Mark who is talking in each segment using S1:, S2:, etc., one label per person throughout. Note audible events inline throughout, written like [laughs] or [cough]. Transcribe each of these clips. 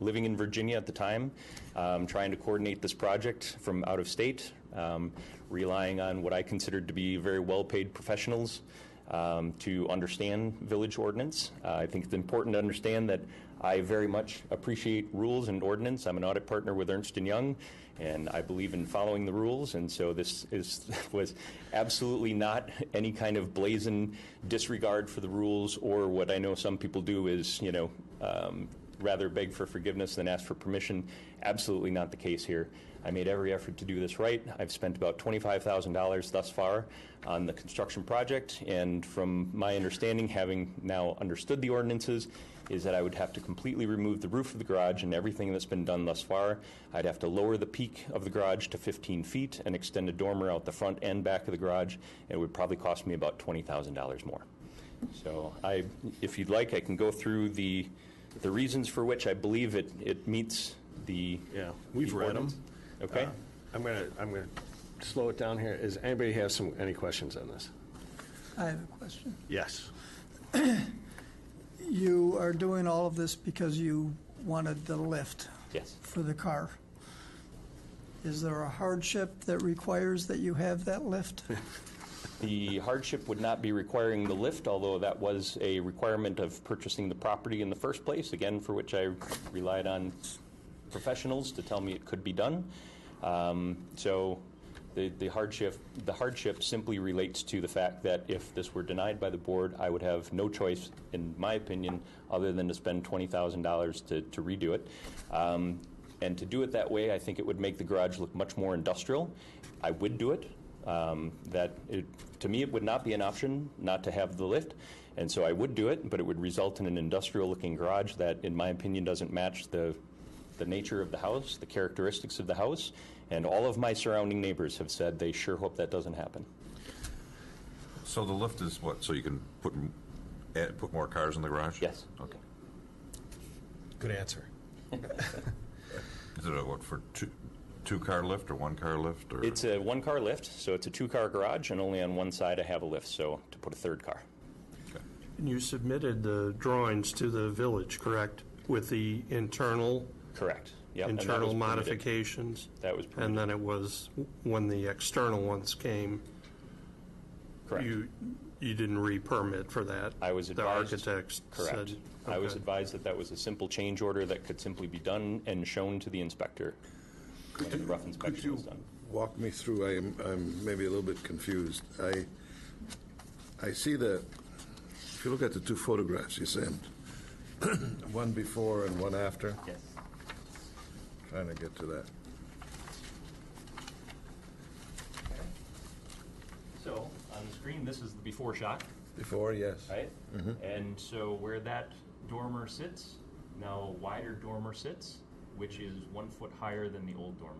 S1: living in Virginia at the time, um, trying to coordinate this project from out of state, um, relying on what I considered to be very well paid professionals um, to understand village ordinance. Uh, I think it's important to understand that I very much appreciate rules and ordinance. I'm an audit partner with Ernst & Young, and I believe in following the rules, and so this is, [laughs] was absolutely not any kind of blazing disregard for the rules, or what I know some people do is, you know, um, rather beg for forgiveness than ask for permission. Absolutely not the case here. I made every effort to do this right. I've spent about $25,000 thus far on the construction project, and from my understanding, having now understood the ordinances, is that I would have to completely remove the roof of the garage and everything that's been done thus far. I'd have to lower the peak of the garage to 15 feet and extend a dormer out the front and back of the garage. It would probably cost me about $20,000 more. So I, if you'd like, I can go through the, the reasons for which I believe it, it meets the.
S2: Yeah, Uh, we've
S1: the
S2: read 'em.
S1: ordinance. Okay?
S2: I'm gonna, I'm gonna slow it down here. Does anybody have some, any questions on this?
S3: I have a question.
S2: Yes.
S3: You are doing all of this because you wanted the lift
S1: Yes.
S3: for the car. Is there a hardship that requires that you have that lift?
S1: The hardship would not be requiring the lift, although that was a requirement of purchasing the property in the first place, again, for which I relied on professionals to tell me it could be done. Um, So the the hardship, the hardship simply relates to the fact that if this were denied by the board, I would have no choice, in my opinion, other than to spend $20,000 to to redo it. Um, And to do it that way, I think it would make the garage look much more industrial. I would do it, um, that it, to me, it would not be an option not to have the lift, and so I would do it, but it would result in an industrial-looking garage that, in my opinion, doesn't match the, the nature of the house, the characteristics of the house, and all of my surrounding neighbors have said they sure hope that doesn't happen.
S4: So the lift is what, so you can put, m- add, put more cars in the garage? Oh,
S1: Yes.
S4: Okay.
S2: Good answer.
S4: Is it a, what, for two, two-car lift or one-car lift or?
S1: It's a one-car lift, so it's a two-car garage, and only on one side I have a lift, so to put a third car.
S5: And you submitted the drawings to the village, correct? With the internal,
S1: Correct. Yep, and that was
S5: internal
S1: permitted.
S5: modifications?
S1: That was
S5: And
S1: permitted,
S5: then it was, when the external ones came,
S1: correct.
S5: you, you didn't re-permit for that?
S1: I was advised-
S5: The architects said?
S1: Correct. I was
S5: Okay.
S1: advised that that was a simple change order that could simply be done and shown to the inspector when the rough
S6: Could
S1: inspection
S6: you
S1: was done.
S6: walk me through, I am, I'm maybe a little bit confused. I, I see the, if you look at the two photographs you sent, [clears throat] one before and one after,
S1: Yes.
S6: trying to get to that.
S1: So, on the screen, this is the before shot,
S6: Before, yes. Mm-hmm.
S1: right? And so where that dormer sits, now a wider dormer sits, which is one foot higher than the old dormer.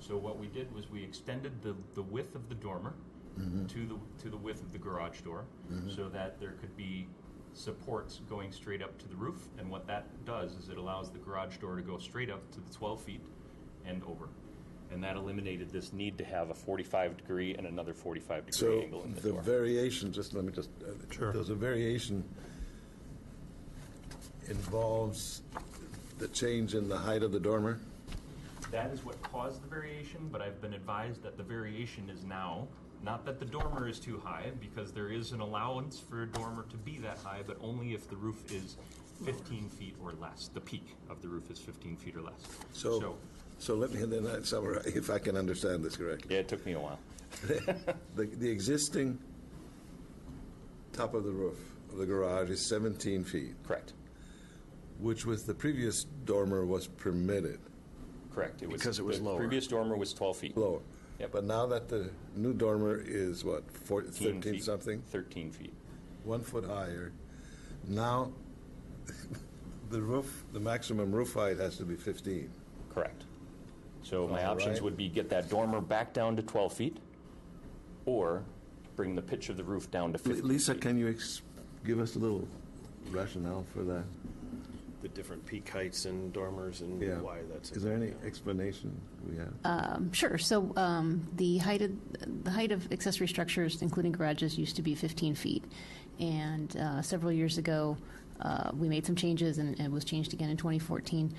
S1: So what we did was we extended the, the width of the dormer
S6: Mm-hmm.
S1: to the, to the width of the garage door, so that there could be supports going straight up to the roof. And what that does is it allows the garage door to go straight up to the 12 feet and over. And that eliminated this need to have a 45 degree and another 45 degree
S6: So
S1: angle in the,
S6: the
S1: door.
S6: variation, just let me just, uh,
S5: Sure.
S6: there's a variation involves the change in the height of the dormer?
S1: That is what caused the variation, but I've been advised that the variation is now, not that the dormer is too high, because there is an allowance for a dormer to be that high, but only if the roof is 15 feet or less. The peak of the roof is 15 feet or less.
S6: So, so let me, then I summarize, if I can understand this correctly.
S1: yeah, it took me a while.
S6: The, the existing top of the roof of the garage is 17 feet,
S1: Correct.
S6: which with the previous dormer was permitted
S1: Correct. It was,
S2: Because it was
S1: the
S2: lower.
S1: previous dormer was 12 feet.
S6: lower.
S1: Yep.
S6: But now that the new dormer is what, four-
S1: 13
S6: 13
S1: feet.
S6: something,
S1: 13 feet.
S6: one foot higher, now [laughs] the roof, the maximum roof height has to be 15.
S1: Correct. So my
S6: All
S1: options
S6: right.
S1: would be get that dormer back down to 12 feet, or bring the pitch of the roof down to 15
S6: Lisa,
S1: feet.
S6: can you ex- give us a little rationale for that?
S2: The different peak heights and dormers and
S6: Yeah.
S2: why that's.
S6: Is there any explanation we have?
S7: Sure. So um, the height of, the height of accessory structures, including garages, used to be 15 feet. And uh, several years ago, uh, we made some changes, and it was changed again in 2014,